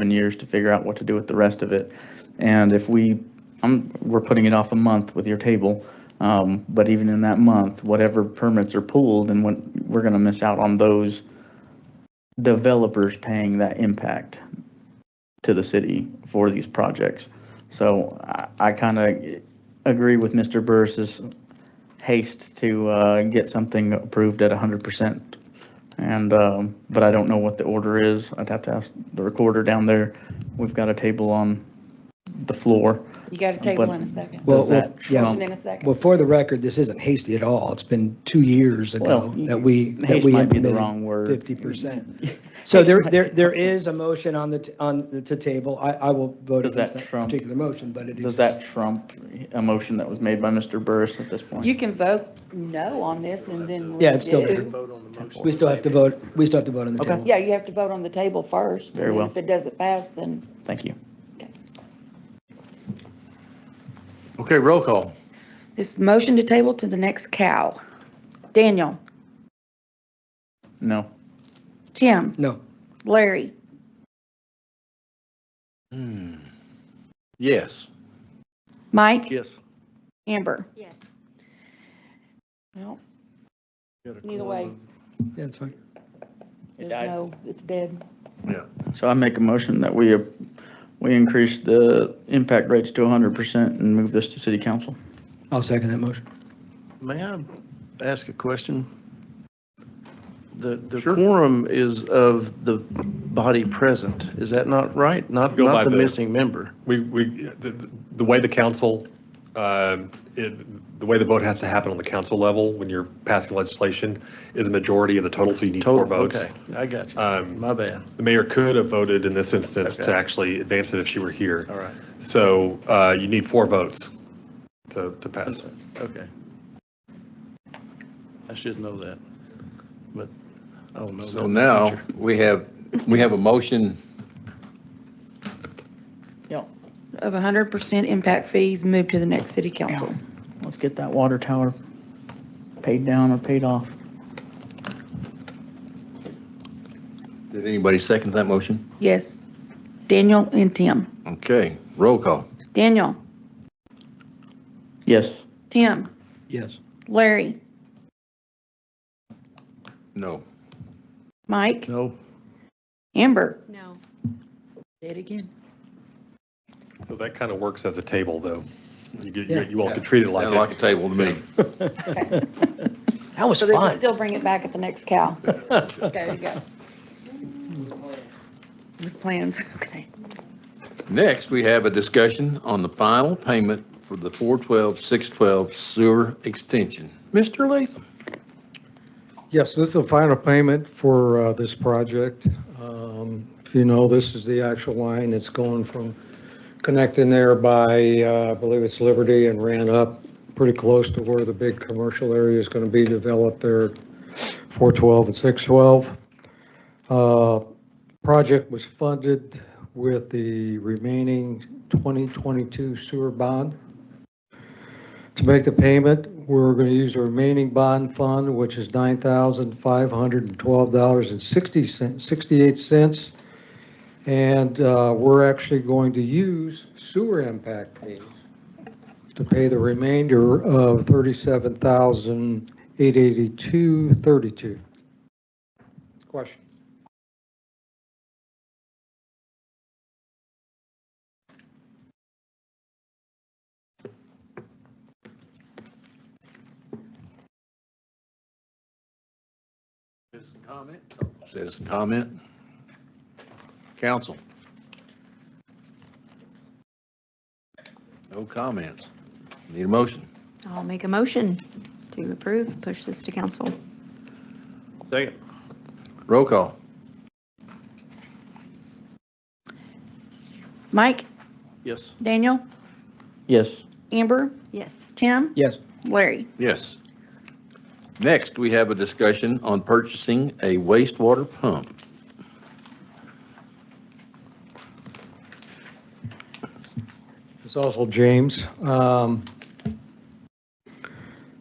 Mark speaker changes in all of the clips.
Speaker 1: seven years to figure out what to do with the rest of it. And if we, I'm, we're putting it off a month with your table, um, but even in that month, whatever permits are pulled and what, we're gonna miss out on those developers paying that impact to the city for these projects. So I, I kinda agree with Mr. Burris's haste to, uh, get something approved at hundred percent. And, um, but I don't know what the order is. I'd have to ask the recorder down there. We've got a table on the floor.
Speaker 2: You got a table in a second.
Speaker 1: Does
Speaker 3: Well,
Speaker 1: that
Speaker 3: well,
Speaker 2: Motion
Speaker 1: trump?
Speaker 2: in a second.
Speaker 3: Well, for the record, this isn't hasty at all. It's been two years ago
Speaker 1: Well,
Speaker 3: that we, that
Speaker 1: Haste
Speaker 3: we
Speaker 1: might be the
Speaker 3: implemented
Speaker 1: wrong word.
Speaker 3: fifty percent. So
Speaker 1: Haste
Speaker 3: there,
Speaker 1: might-
Speaker 3: there, there is a motion on the, t- on the, to table. I, I will vote
Speaker 1: Does
Speaker 3: against
Speaker 1: that
Speaker 3: that
Speaker 1: trump-
Speaker 3: particular motion, but it
Speaker 1: Does
Speaker 3: is.
Speaker 1: that trump a motion that was made by Mr. Burris at this point?
Speaker 2: You can vote no on this and then.
Speaker 3: Yeah, it's still
Speaker 2: redo.
Speaker 3: there. We still have to vote, we still have to vote on the
Speaker 1: Okay.
Speaker 3: table.
Speaker 2: Yeah, you have to vote on the table first.
Speaker 1: Very
Speaker 2: and
Speaker 1: well.
Speaker 2: If it doesn't pass, then
Speaker 1: Thank you.
Speaker 4: Okay, roll call.
Speaker 2: this motion to table to the next cow. Daniel,
Speaker 1: No.
Speaker 2: Jim,
Speaker 3: No,
Speaker 2: Larry,
Speaker 4: Hmm. Yes.
Speaker 2: Mike,
Speaker 4: Yes.
Speaker 2: Amber. Yes. Well, either way,
Speaker 3: yeah, that's fine.
Speaker 2: there's
Speaker 1: died.
Speaker 2: no, it's dead.
Speaker 4: Yeah.
Speaker 1: So I make a motion that we, uh, we increase the impact rates to 100% and move this to city council.
Speaker 3: I'll second that motion.
Speaker 5: May I ask a question? The, the
Speaker 4: Sure.
Speaker 5: quorum is of the body present, is that not right? Not,
Speaker 6: Go by
Speaker 5: not the
Speaker 6: the-
Speaker 5: missing member?
Speaker 6: We, we, the, the way the council, um, it- the way the vote has to happen on the council level when you're passing legislation is a majority of the total, so you need four
Speaker 5: Total.
Speaker 6: votes.
Speaker 5: Okay, I got you,
Speaker 6: Um,
Speaker 5: my bad,
Speaker 6: The mayor could have voted in this instance to
Speaker 5: Okay.
Speaker 6: actually advance it if she were here.
Speaker 5: all right,
Speaker 6: So uh, you need four votes to, to pass.
Speaker 5: okay. I should know that, but I don't know. that
Speaker 4: So
Speaker 5: in the
Speaker 4: now,
Speaker 5: future.
Speaker 4: we have, we have a motion,
Speaker 1: Yep.
Speaker 2: Of 100% impact fees moved to the next city council.
Speaker 1: Let's get that water tower paid down or paid off.
Speaker 4: did anybody second that motion?
Speaker 2: Yes. Daniel and Tim.
Speaker 4: Okay, roll call.
Speaker 2: Daniel,
Speaker 1: Yes.
Speaker 2: Tim,
Speaker 3: Yes.
Speaker 2: Larry,
Speaker 4: No.
Speaker 2: Mike,
Speaker 5: No,
Speaker 2: Amber.
Speaker 7: No.
Speaker 2: Dead again.
Speaker 6: So that kind of works as a table, though. You, get- you-
Speaker 3: Yeah.
Speaker 6: you all could treat it
Speaker 4: Sounded like
Speaker 6: like
Speaker 4: a table to me.
Speaker 3: That was
Speaker 2: So they can
Speaker 3: fun.
Speaker 2: still bring it back at the next cow. There you go. With plans, okay.
Speaker 4: Next, we have a discussion on the final payment for the 412, 612 sewer extension. Mr. Latham?
Speaker 8: Yes, this is the final payment for uh, this project. Um, If you know, this is the actual line that's going from, connecting there by, uh, I believe it's Liberty and ran up pretty close to where the big commercial area is going to be developed there, 412 and 612. Uh, Project was funded with the remaining 2022 sewer bond. To make the payment, we're going to use the remaining bond fund, which is $9,512.68. And uh, we're actually going to use sewer impact fees to pay the remainder of $37,882.32. Question?
Speaker 4: Citizen comment? Citizen comment? Council? No comments. Need a motion?
Speaker 7: I'll make a motion to approve, push this to council.
Speaker 5: second,
Speaker 4: Roll call.
Speaker 2: Mike,
Speaker 5: yes,
Speaker 2: Daniel,
Speaker 1: Yes.
Speaker 2: Amber,
Speaker 7: Yes.
Speaker 2: Tim,
Speaker 3: Yes.
Speaker 2: Larry.
Speaker 4: Yes. Next, we have a discussion on purchasing a wastewater pump.
Speaker 8: It's also James. Um,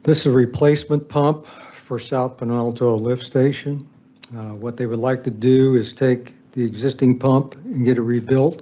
Speaker 8: This is a replacement pump for South Penalto Lift Station. Uh, What they would like to do is take the existing pump and get it rebuilt.